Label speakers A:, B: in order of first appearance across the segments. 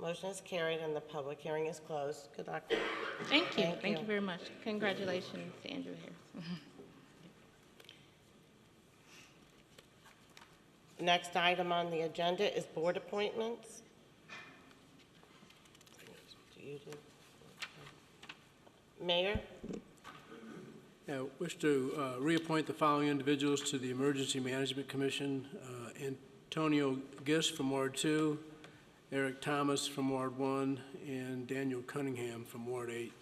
A: Motion is carried and the public hearing is closed. Good luck.
B: Thank you,
A: Thank
B: thank
A: you.
B: you very much. Congratulations to Andrew Harris.
A: Next item on the agenda is board appointments. Do you do- Mayor,
C: I wish to uh, reappoint the following individuals to the Emergency Management Commission. Uh, Antonio Gist from Ward 2, Eric Thomas from Ward 1, and Daniel Cunningham from Ward 8.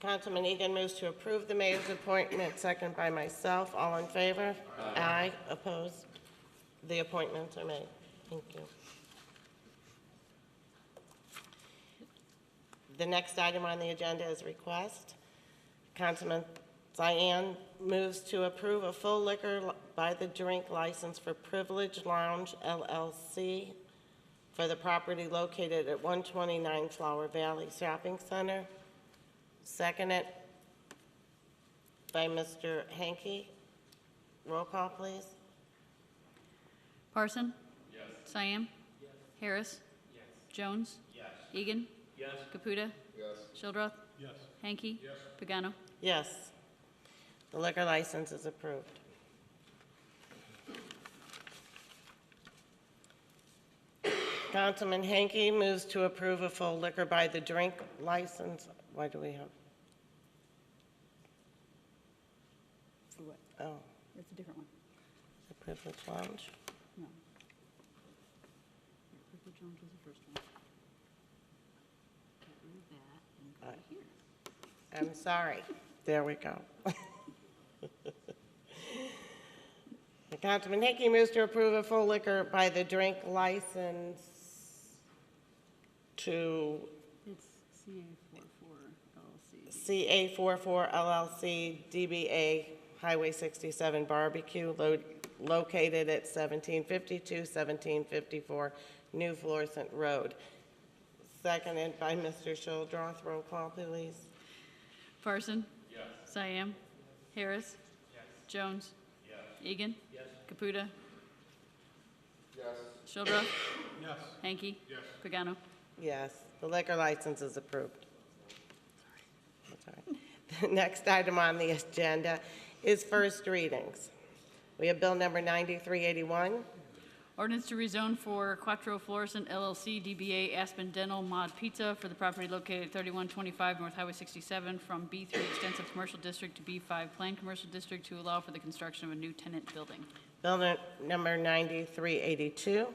A: Councilman Egan moves to approve the mayor's appointment, second by myself. All in favor? Aye. Opposed? The appointments are made. Thank you. The next item on the agenda is request. Councilman Cyan moves to approve a full liquor li- by the drink license for Privilege Lounge LLC for the property located at 129 Flower Valley Shopping Center. Seconded by Mr. Hanky. Roll call, please.
D: Parson? Yes. Cyan? Yes. Harris? Yes. Jones? Yes. Egan? Yes. Caputa? Yes. Shildroth? Yes. Hanky? Yes. Pagano?
A: Yes. The liquor license is approved. Councilman Hanky moves to approve a full liquor by the drink license. Why do we have?
D: For what?
A: Oh,
D: That's a different one.
A: the privilege lounge.
D: No. Clifford Jones was the first one. Get rid of that
A: Aye.
D: and here.
A: I'm sorry. There we go. Councilman Hickey moves to approve a full liquor by the drink license to
D: It's CA four four
A: CA44
D: LLC.
A: LLC DBA Highway 67 Barbecue lo- located at 1752, 1754 New Florissant Road. Seconded by Mr. Shildroth. Roll call, please.
D: Parson? Yes. Cyan? Harris? Yes. Jones? Yes. Egan? Yes. Caputa? Yes. Shildroth? Yes. Hanky? Yes. Pagano?
A: Yes, the liquor license is approved. That's all right. The next item on the agenda is first readings. We have Bill number 9381.
D: Ordinance to rezone for Quattro Florissant LLC DBA Aspen Dental Mod Pizza for the property located at 3125 North Highway 67 from B3 Extensive Commercial District to B5 Planned Commercial District to allow for the construction of a new tenant building.
A: Bill nu- number 9382.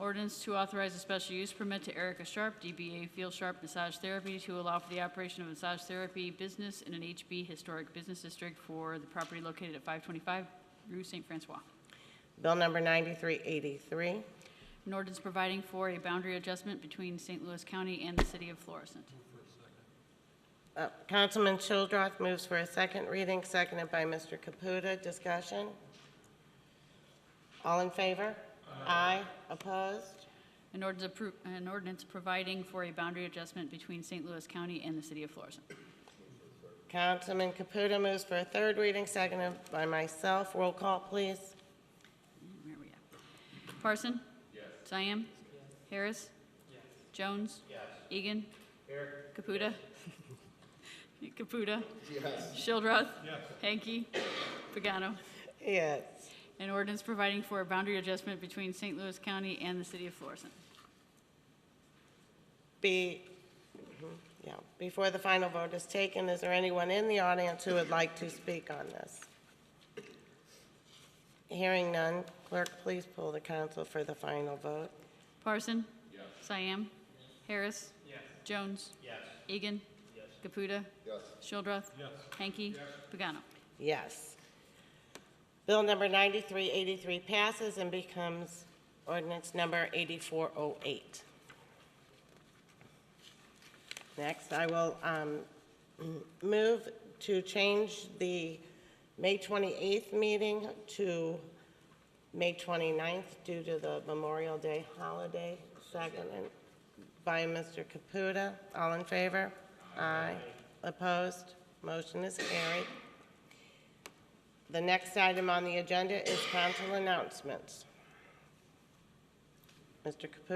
D: Ordinance to authorize a special use permit to Erica Sharp, DBA Field Sharp Massage Therapy, to allow for the operation of a massage therapy business in an HB Historic Business District for the property located at 525 Rue St. Francois.
A: Bill number 9383.
D: An ordinance providing for a boundary adjustment between St. Louis County and the city of Florissant.
A: Uh, Councilman Childrath moves for a second reading, seconded by Mr. Caputa. Discussion? All in favor? Aye. Opposed?
D: An ordinance appro, an ordinance providing for a boundary adjustment between St. Louis County and the city of Florissant.
A: Councilman Caputa moves for a third reading, seconded by myself. Roll call, please.
D: Where are we at? Parson? Yes. Cyan? Harris? Jones? Egan? Caputa? Caputa? Shildroth? Hanky? Pagano?
A: Yes.
D: An ordinance providing for a boundary adjustment between St. Louis County and the city of Florissant.
A: Be, mhm, yeah, before the final vote is taken, is there anyone in the audience who would like to speak on this? Hearing none, clerk, please pull the council for the final vote.
D: Parson? Yes. Cyan? Harris? Jones? Egan? Caputa? Shildroth? Hanky? Pagano?
A: Yes. Bill number 9383 passes and becomes ordinance number 8408. Next, I will um, move to change the May 28th meeting to May 29th due to the Memorial Day holiday, seconded by Mr. Caputa. All in favor? Aye. Opposed? Motion is carried. The next item on the agenda is council announcements. Mr. Caputa.